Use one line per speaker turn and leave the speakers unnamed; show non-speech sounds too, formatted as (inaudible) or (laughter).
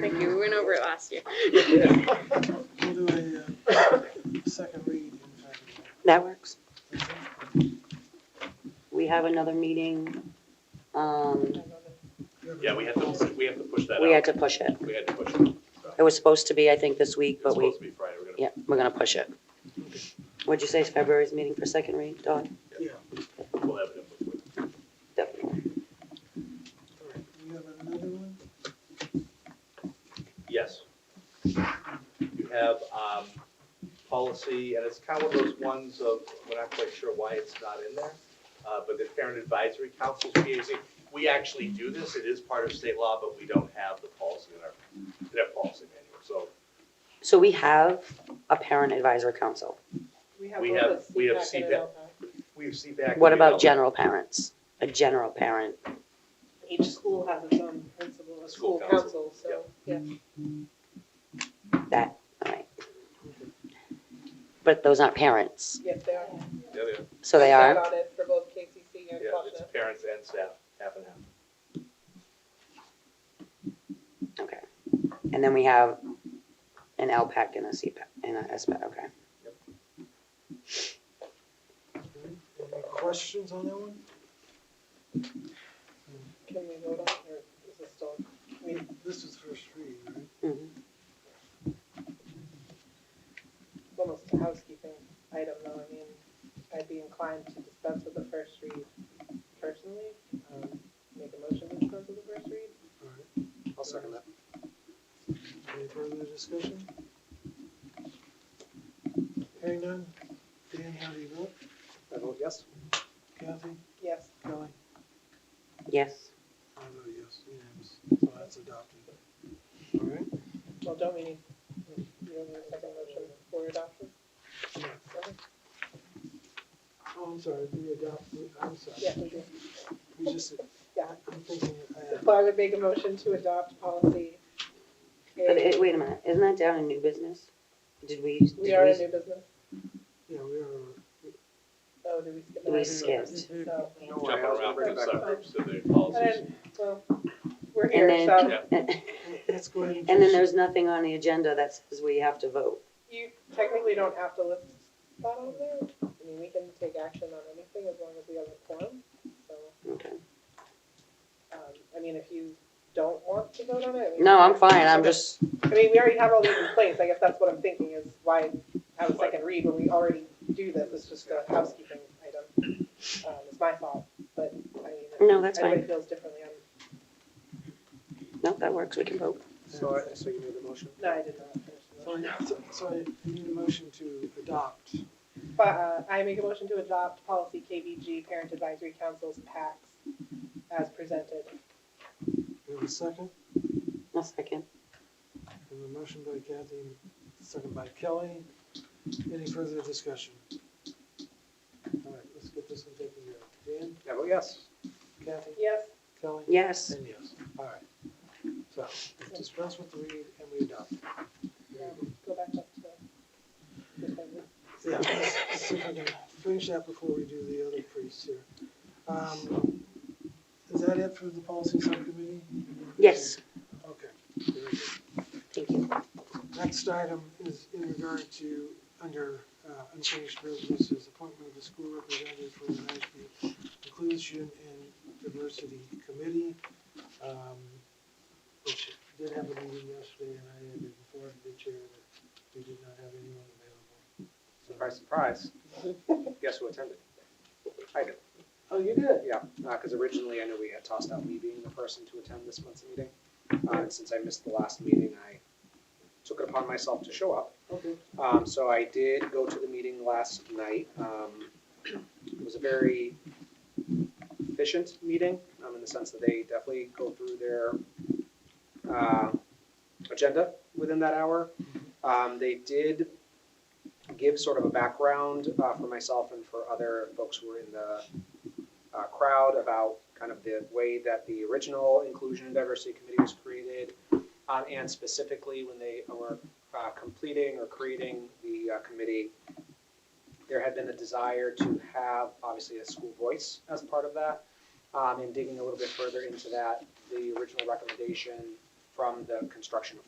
Thank you, we went over it last year.
We'll do a uh, second read in February.
That works. We have another meeting. Um,
Yeah, we had to, we have to push that out.
we had to push it.
We had to push it.
It was supposed to be, I think, this week,
It's
but we,
supposed to be Friday. We're gonna,
yeah, we're gonna push it. What'd you say is February's meeting for second read, Dawn?
we'll have it in before.
Definitely.
We have another one?
Yes. You have, um, policy, and it's kind of one of those ones of, we're not quite sure why it's not in there, uh, but the parent advisory councils PAC, we actually do this, it is part of state law, but we don't have the policy in our, in our policy manual, so
So we have a parent advisory council.
we have, we have CPAC. We have CPAC.
What
we
about
have-
general parents? A general parent?
Each school has its own principal and
School
school
council,
council, so, yeah.
That, all right. But those aren't parents,
Yes, they are.
Yeah, yeah,
so they
I sat
are.
on it for both KCC and
yeah, it's
Quadna.
parents and staff, half and half.
Okay. And then we have an LPAC and a CPAC and a SPAC, okay.
Any questions on that one?
Can we vote on it, or is it still?
This is first read, right?
Mhm.
it's almost a housekeeping item though, I mean, I'd be inclined to dispense with the first read personally. Um, Make a motion to dispense with the first read.
All right. I'll second that. Any further discussion? Hearing none. Dan, how do you vote?
I vote yes.
Kathy?
Yes,
Kelly?
Yes.
I vote yes, unanimous. So that's adopted. All right.
well, don't we need, you don't need a second motion for adoption? Okay.
Oh, I'm sorry, we adopted, I'm sorry.
Yeah, we do.
We just,
Yeah.
I'm thinking, uh, I
So I would make a motion to adopt policy. A.
But it, wait a minute, isn't that down in new business? Did we? did
We are in new business.
yeah, we are,
Oh, did we skip?
We
that?
skipped.
No.
Don't worry,
Jumping
Oh, I was gonna
around
bring
from
it back up.
subgroups to their policies.
And, well, we're
And
here, so
then,
let's go ahead and.
(laughs) and then there's nothing on the agenda that says we have to vote.
you technically don't have to list that on there. I mean, we can take action on anything as long as we have a quorum. So,
Okay.
um, I mean, if you don't want to vote on it. I mean-
No, I'm fine, I'm
Okay.
just,
I mean, we already have all these in place. I guess that's what I'm thinking is why have a second read when we already do this. It's just a housekeeping item. Um, it's my fault, but I mean. if
no, that's fine.
Everybody feels differently. I'm,
No, that works, we can vote.
So, I- so you made the motion?
no, I did not finish the motion.
So (laughs) I- so- So I need a motion to adopt.
But uh, I make a motion to adopt policy KBG, Parent Advisory Councils, PACs, as presented.
We have a second,
A second.
and a motion by Kathy, second by Kelly. Any further discussion? All right, let's get this one taken care of. Dan,
I vote yes.
Kathy,
Yes,
Kelly?
Yes,
And yes, all right. So dispense with the read and we adopt.
go back up to.
Yeah, let's see if I can finish that before we do the other priests here. Um, Is that it for the policy subcommittee?
yes,
Okay, very good.
thank you.
Next item is in regard to, under uh, unfinished business, is appointment of the school representative for the Mashpee Inclusion and Diversity Committee, um, which did have a meeting yesterday, and I had informed the chair that we did not have anyone available.
Surprise, surprise. Guess who attended? I did.
Oh, you did?
Yeah, because originally I know we had tossed out me being the person to attend this month's meeting. Uh, And since I missed the last meeting, I took it upon myself to show up.
Okay.
Um, so I did go to the meeting last night. Um, it was a very efficient meeting, um, in the sense that they definitely go through their, uh, agenda within that hour. Um, they did give sort of a background, uh, for myself and for other folks who were in the, uh, crowd about kind of the way that the original Inclusion and Diversity Committee was created, um, and specifically when they were uh, completing or creating the uh, committee, there had been a desire to have, obviously, a school voice as part of that. Um, And digging a little bit further into that, the original recommendation from the construction of